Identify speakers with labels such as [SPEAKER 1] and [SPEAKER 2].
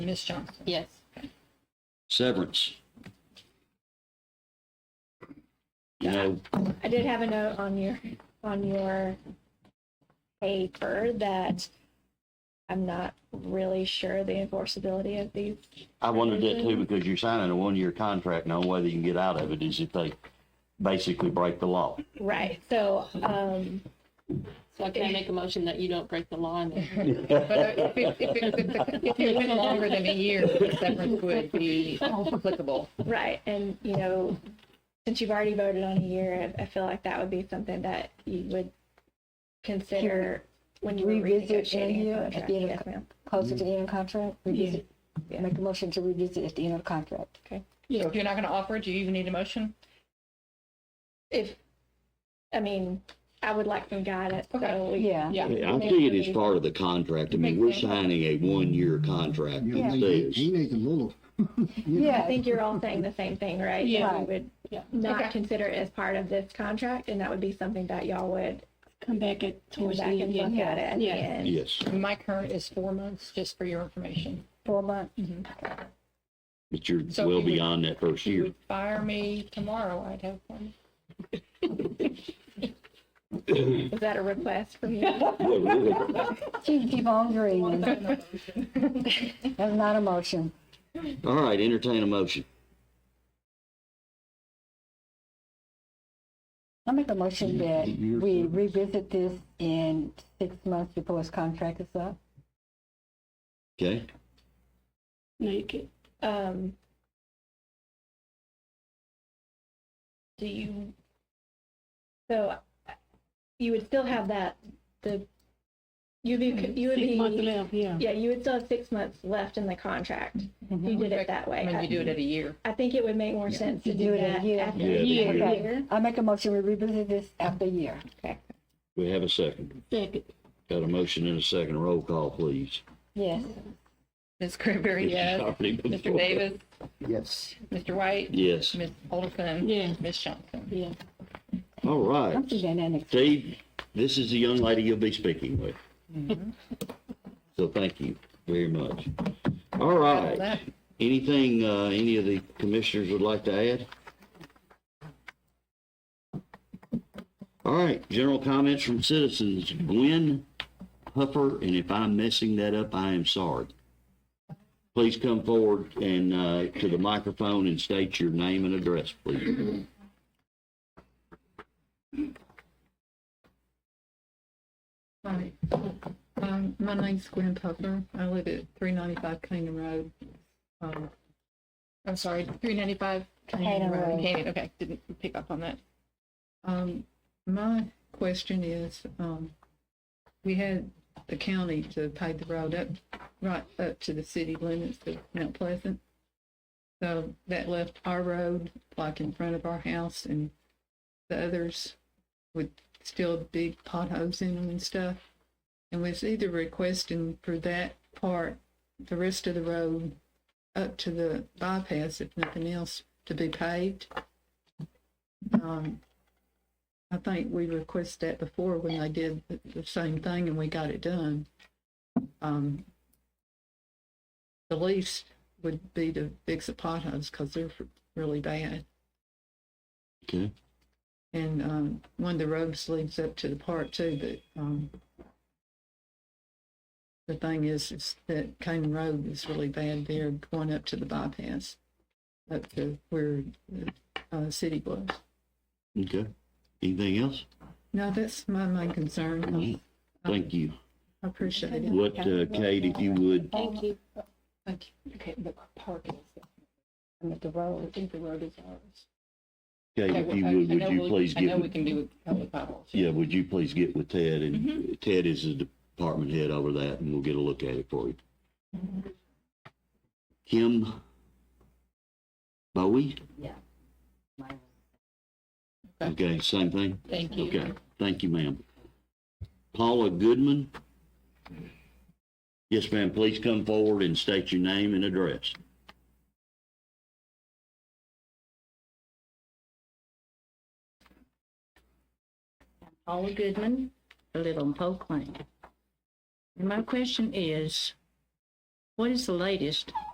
[SPEAKER 1] Ms. Johnson?
[SPEAKER 2] Yes.
[SPEAKER 3] Severance. You know,
[SPEAKER 4] I did have a note on your, on your paper that I'm not really sure the enforceability of these.
[SPEAKER 3] I wondered that too, because you're signing a one-year contract, and the only way that you can get out of it is if they basically break the law.
[SPEAKER 4] Right, so, um,
[SPEAKER 2] So can I make a motion that you don't break the law and that
[SPEAKER 1] But uh, if it, if it, if it- if it went longer than a year, the severance would be applicable.
[SPEAKER 4] right, and, you know, since you've already voted on a year, I, I feel like that would be something that you would consider when you were
[SPEAKER 5] Revisit in
[SPEAKER 4] renegotiating
[SPEAKER 5] here
[SPEAKER 4] a
[SPEAKER 5] at
[SPEAKER 4] contract.
[SPEAKER 5] the end of
[SPEAKER 4] Yes, ma'am.
[SPEAKER 5] closer to the end of contract, revisit,
[SPEAKER 4] Yeah.
[SPEAKER 5] make a motion to revisit at the end of the contract.
[SPEAKER 1] So if you're not going to offer, it, do you even need a motion?
[SPEAKER 4] If, I mean, I would like some guidance, so
[SPEAKER 1] Okay.
[SPEAKER 4] we.
[SPEAKER 5] Yeah,
[SPEAKER 1] Yeah.
[SPEAKER 3] I see it as part of the contract. I mean, we're signing a one-year contract. It
[SPEAKER 6] You
[SPEAKER 5] Yeah.
[SPEAKER 6] need, you
[SPEAKER 3] says,
[SPEAKER 6] need a little,
[SPEAKER 4] I
[SPEAKER 5] yeah,
[SPEAKER 4] think you're all saying the same thing, right?
[SPEAKER 1] Yeah.
[SPEAKER 4] That we would
[SPEAKER 2] Yeah.
[SPEAKER 1] Okay.
[SPEAKER 4] not consider it as part of this contract, and that would be something that y'all would
[SPEAKER 2] come back at
[SPEAKER 4] come
[SPEAKER 2] towards the
[SPEAKER 4] back and
[SPEAKER 2] end?
[SPEAKER 4] look
[SPEAKER 2] yeah.
[SPEAKER 4] at it at the
[SPEAKER 2] Yeah.
[SPEAKER 4] end.
[SPEAKER 3] Yes,
[SPEAKER 1] My current is four months, just for your information.
[SPEAKER 5] four months,
[SPEAKER 3] but you're
[SPEAKER 1] So
[SPEAKER 3] well
[SPEAKER 1] we would-
[SPEAKER 3] beyond that
[SPEAKER 1] If
[SPEAKER 3] first
[SPEAKER 1] you
[SPEAKER 3] year.
[SPEAKER 1] would fire me tomorrow, I'd have one.
[SPEAKER 4] Is that a request from you?
[SPEAKER 3] Well, really.
[SPEAKER 5] she can keep on dreaming, that's not a motion.
[SPEAKER 3] All right, entertain a motion.
[SPEAKER 5] I make a motion that
[SPEAKER 6] Year
[SPEAKER 5] we
[SPEAKER 6] service.
[SPEAKER 5] revisit this in six months before his contract is up.
[SPEAKER 3] Okay,
[SPEAKER 2] Make it.
[SPEAKER 4] Um, do you, so you would still have that, the, you'd be, you would
[SPEAKER 2] Six months
[SPEAKER 4] be,
[SPEAKER 2] left, yeah.
[SPEAKER 4] yeah, you would still have six months left in the contract. if You did it that
[SPEAKER 1] I mean, you
[SPEAKER 4] way.
[SPEAKER 1] do it at a year.
[SPEAKER 4] I I think it would make more sense to
[SPEAKER 5] To
[SPEAKER 4] do
[SPEAKER 5] do it in
[SPEAKER 4] that
[SPEAKER 5] here.
[SPEAKER 4] after
[SPEAKER 3] Yeah,
[SPEAKER 4] a
[SPEAKER 3] the
[SPEAKER 4] year.
[SPEAKER 3] year.
[SPEAKER 5] Okay, I make a motion, we revisit this after a year.
[SPEAKER 3] we have a second.
[SPEAKER 2] Second.
[SPEAKER 3] Got a motion and a second. Roll call, please.
[SPEAKER 5] Yes,
[SPEAKER 1] Ms. Cranberry, yes.
[SPEAKER 3] Already before.
[SPEAKER 1] Mr. Davis,
[SPEAKER 6] yes,
[SPEAKER 1] Mr. White,
[SPEAKER 3] Yes.
[SPEAKER 1] Ms. Olson.
[SPEAKER 2] Yeah.
[SPEAKER 1] Ms. Johnson.
[SPEAKER 2] Yeah.
[SPEAKER 3] All right.
[SPEAKER 5] I'm thinking that next,
[SPEAKER 3] Steve, this is the young lady you'll be speaking with. So thank you very much. All right.
[SPEAKER 1] That-
[SPEAKER 3] Anything, uh, any of the commissioners would like to add? All right, general comments from citizens. Gwen Huffer, and if I'm messing that up, I am sorry. Please come forward and, uh, to the microphone and state your name and address, please.
[SPEAKER 7] Hi, um, my name's Gwen Puffer. I live at three ninety-five Canaan Road. Um, I'm sorry, three ninety-five Canaan
[SPEAKER 5] Canaan
[SPEAKER 7] Road.
[SPEAKER 5] Road.
[SPEAKER 7] Canaan, okay, didn't pick up on that. Um, my question is, um, we had the county to pave the road up, right up to the city limits of Mount Pleasant. So that left our road like in front of our house and the others with still big potholes in them and stuff. And was either requesting for that part, the rest of the road up to the bypass, if nothing else, to be paved. Um, I think we requested that before when they did the- the same thing and we got it done. Um, the least would be to fix the potholes because they're really bad.
[SPEAKER 3] Okay.
[SPEAKER 7] And um, one of the roads leads up to the park too, but um, the thing is, is that Cane Road is really bad there, going up to the bypass, up to where the uh, city was.
[SPEAKER 3] Okay. Anything else?
[SPEAKER 7] No, that's my main concern.
[SPEAKER 3] Thank you.
[SPEAKER 7] I appreciate it.
[SPEAKER 3] What, uh, Kate, if you would,
[SPEAKER 2] Thank you.
[SPEAKER 7] Thank you. Okay, the park is,
[SPEAKER 5] I mean, the
[SPEAKER 7] I
[SPEAKER 5] road,
[SPEAKER 7] think the road is ours.
[SPEAKER 3] Kate, if you would, would you please
[SPEAKER 7] I
[SPEAKER 3] get,
[SPEAKER 7] know we
[SPEAKER 3] with-
[SPEAKER 7] can do public potholes.
[SPEAKER 3] yeah, would you please get with Ted? And Ted is the department head over that, and we'll get a look at it for you. Mm-hmm. Kim Bowie? Yeah. Okay, same thing?
[SPEAKER 1] Thank you.
[SPEAKER 3] Okay, thank you, ma'am. Paula Goodman? Yes, ma'am, please come forward and state your name and address.
[SPEAKER 8] Paula Goodman, I live on Polk Lane. And my question is,
[SPEAKER 7] What is the latest?